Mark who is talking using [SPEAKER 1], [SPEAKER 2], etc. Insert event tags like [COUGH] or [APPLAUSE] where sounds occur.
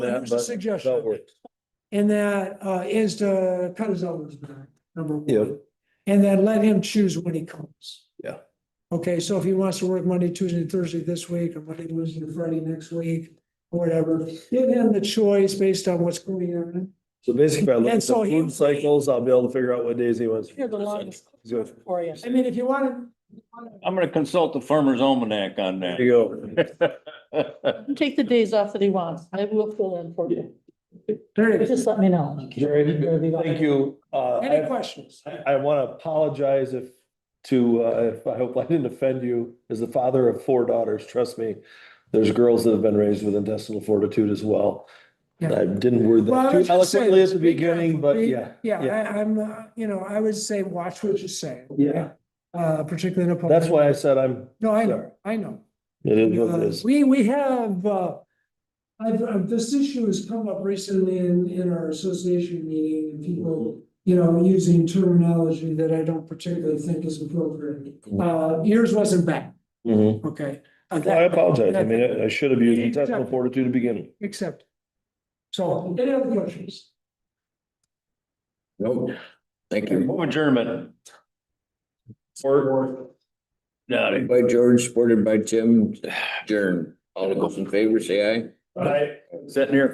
[SPEAKER 1] that,
[SPEAKER 2] Here's a
[SPEAKER 1] but
[SPEAKER 2] suggestion.
[SPEAKER 1] that works.
[SPEAKER 2] And that uh is to cut his elders back, number one.
[SPEAKER 1] Yeah.
[SPEAKER 2] And then let him choose when he comes.
[SPEAKER 1] Yeah.
[SPEAKER 2] Okay, so if he wants to work Monday, Tuesday, Thursday this week, or Monday, Tuesday, Friday next week, or whatever, give him the choice based on what's going on.
[SPEAKER 1] So basically, if I look at
[SPEAKER 2] And
[SPEAKER 1] the
[SPEAKER 2] so he-
[SPEAKER 1] food cycles, I'll be able to figure out what days he wants.
[SPEAKER 3] You're the longest
[SPEAKER 1] Good.
[SPEAKER 3] for you.
[SPEAKER 2] I mean, if you want to.
[SPEAKER 4] I'm gonna consult the farmer's almanac on
[SPEAKER 1] There
[SPEAKER 4] that.
[SPEAKER 1] you go.
[SPEAKER 3] [LAUGHS] Take the days off that he wants. I will fill in for you.
[SPEAKER 2] There
[SPEAKER 3] But
[SPEAKER 2] you go.
[SPEAKER 3] Just let me know.
[SPEAKER 1] Jerry, Thank you. Uh,
[SPEAKER 2] Any
[SPEAKER 1] I-
[SPEAKER 2] questions?
[SPEAKER 1] I, I want to apologize if to, uh, if I hope I didn't offend you. As the father of four daughters, trust me, there's girls that have been raised with intestinal fortitude as well.
[SPEAKER 2] Yeah.
[SPEAKER 1] I didn't word
[SPEAKER 2] Well,
[SPEAKER 1] that
[SPEAKER 2] I was
[SPEAKER 1] too
[SPEAKER 2] just saying,
[SPEAKER 1] eloquently at the
[SPEAKER 2] be
[SPEAKER 1] beginning,
[SPEAKER 2] careful,
[SPEAKER 1] but
[SPEAKER 2] be-
[SPEAKER 1] yeah.
[SPEAKER 2] Yeah, I, I'm, uh, you know, I would say watch what you say.
[SPEAKER 1] Yeah.
[SPEAKER 2] Uh, particularly in a. public-
[SPEAKER 1] That's why I said I'm,
[SPEAKER 2] No, I know, I know.
[SPEAKER 1] it is what it
[SPEAKER 2] Uh,
[SPEAKER 1] is.
[SPEAKER 2] We, we have, uh, I've, I've- this issue has come up recently in, in our association meeting and people, you know, using terminology that I don't particularly think is appropriate. Uh, yours wasn't bad,
[SPEAKER 1] Mhm.
[SPEAKER 2] okay?
[SPEAKER 1] Well, I
[SPEAKER 2] Uh, that-
[SPEAKER 1] apologize. I
[SPEAKER 2] that-
[SPEAKER 1] mean, I- I should have used
[SPEAKER 2] Yeah,
[SPEAKER 1] intestinal
[SPEAKER 2] exactly.
[SPEAKER 1] fortitude to begin.
[SPEAKER 2] Accept. So, any other questions?
[SPEAKER 5] No, thank you.
[SPEAKER 4] Move Adjournment.
[SPEAKER 1] Or.
[SPEAKER 4] Got it.
[SPEAKER 5] By George, [SIGHS] supported by Tim, Jern. All those in favor, say aye.
[SPEAKER 4] Sitting here